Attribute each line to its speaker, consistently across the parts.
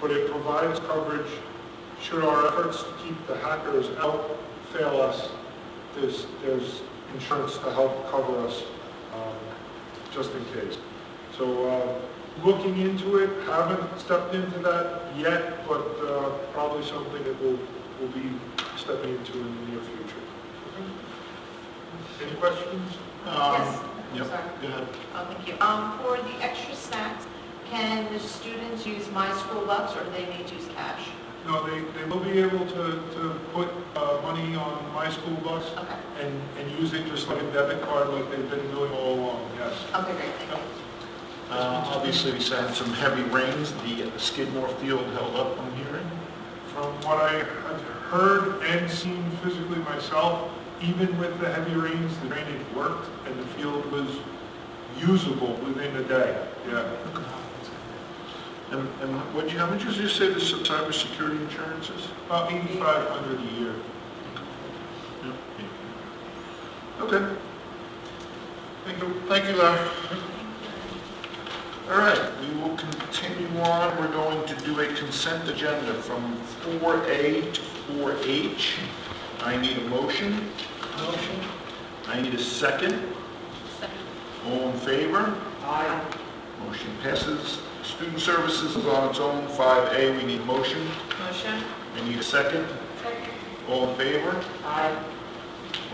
Speaker 1: but it provides coverage should our efforts to keep the hackers out fail us, there's, there's insurance to help cover us, um, just in case. So, uh, looking into it, haven't stepped into that yet, but, uh, probably something that we'll, we'll be stepping into in the near future. Any questions?
Speaker 2: Yes,
Speaker 1: Yeah,
Speaker 2: I'm sorry.
Speaker 1: go ahead.
Speaker 2: Oh, thank you. Um, for the extra snacks, can the students use my school bucks or do they need to use cash?
Speaker 1: No, they, they will be able to, to put uh, money on my school bus
Speaker 2: Okay,
Speaker 1: and, and use it just like a debit card like they've been doing all along, yes.
Speaker 2: okay, great, thank you.
Speaker 3: Uh, Obviously, we had some heavy rains. The Skidmore Field held up, I'm hearing.
Speaker 1: From what I have heard and seen physically myself, even with the heavy rains, the drainage worked and the field was usable within a day, yeah.
Speaker 3: And and what, you- how much did you say the cybersecurity insurance is?
Speaker 1: About eighty-five hundred a year.
Speaker 3: Okay. Thank you, thank you, Larry. All right, we will continue on. We're going to do a consent agenda from 4A to 4H. I need a motion. Motion. I need a second. All in favor?
Speaker 2: Aye.
Speaker 3: Motion passes. Student Services is on its own, 5A, we need a motion.
Speaker 2: Motion?
Speaker 3: We need a second.
Speaker 2: Second.
Speaker 3: All in favor?
Speaker 2: Aye.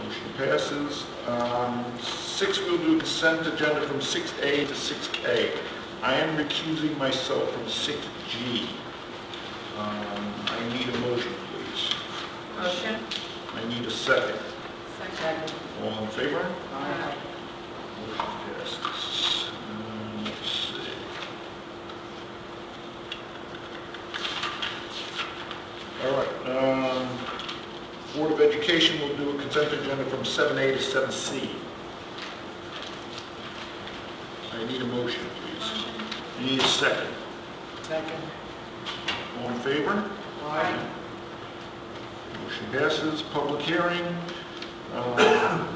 Speaker 3: Motion passes. Um, Six, we'll do consent agenda from 6A to 6K. I am recusing myself from 6G. Um, I need a motion, please.
Speaker 2: Motion?
Speaker 3: I need a second.
Speaker 2: Second.
Speaker 3: All in favor?
Speaker 2: Aye.
Speaker 3: Motion passes. Um, Let's see. All right, um, Board of Education will do a consent agenda from 7A to 7C. I need a motion, please. I need a second.
Speaker 2: Second.
Speaker 3: All in favor?
Speaker 2: Aye.
Speaker 3: Motion passes, public hearing. Uh,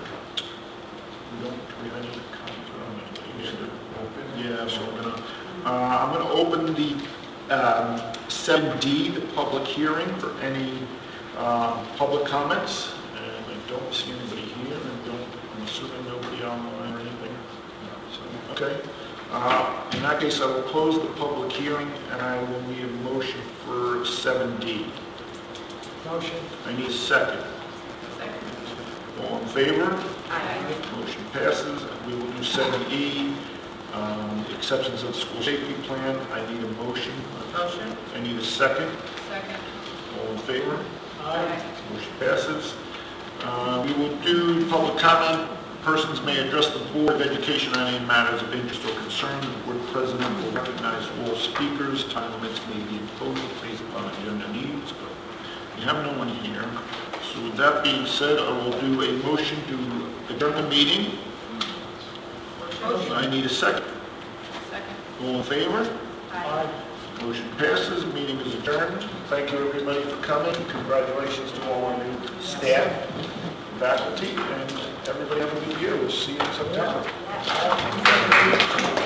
Speaker 3: We don't, we have any comments on it. You should open. Yeah, so I'm gonna, uh, I'm gonna open the um, 7D, the public hearing for any um, public comments. And I don't see anybody here, and don't, I'm assuming nobody online or anything. No, so, Okay. Uh, In that case, I will close the public hearing, and I will need a motion for 7D.
Speaker 2: Motion?
Speaker 3: I need a second.
Speaker 2: Second.
Speaker 3: All in favor?
Speaker 2: Aye.
Speaker 3: Motion passes. We will do 7E, um, acceptance of the school safety plan. I need a motion.
Speaker 2: Motion?
Speaker 3: I need a second.
Speaker 2: Second.
Speaker 3: All in favor?
Speaker 2: Aye.
Speaker 3: Motion passes. Uh, We will do public comment. Persons may address the Board of Education on any matters of interest or concern. The Board President will recognize all speakers. Time limits may be imposed based upon agenda needs, but we have no one here. So with that being said, I will do a motion to adjourn the meeting. I need a second.
Speaker 2: Second.
Speaker 3: All in favor?
Speaker 2: Aye.
Speaker 3: Motion passes, meeting is adjourned. Thank you, everybody, for coming. Congratulations to all our new staff, faculty, and everybody have a good year. We'll see you in September.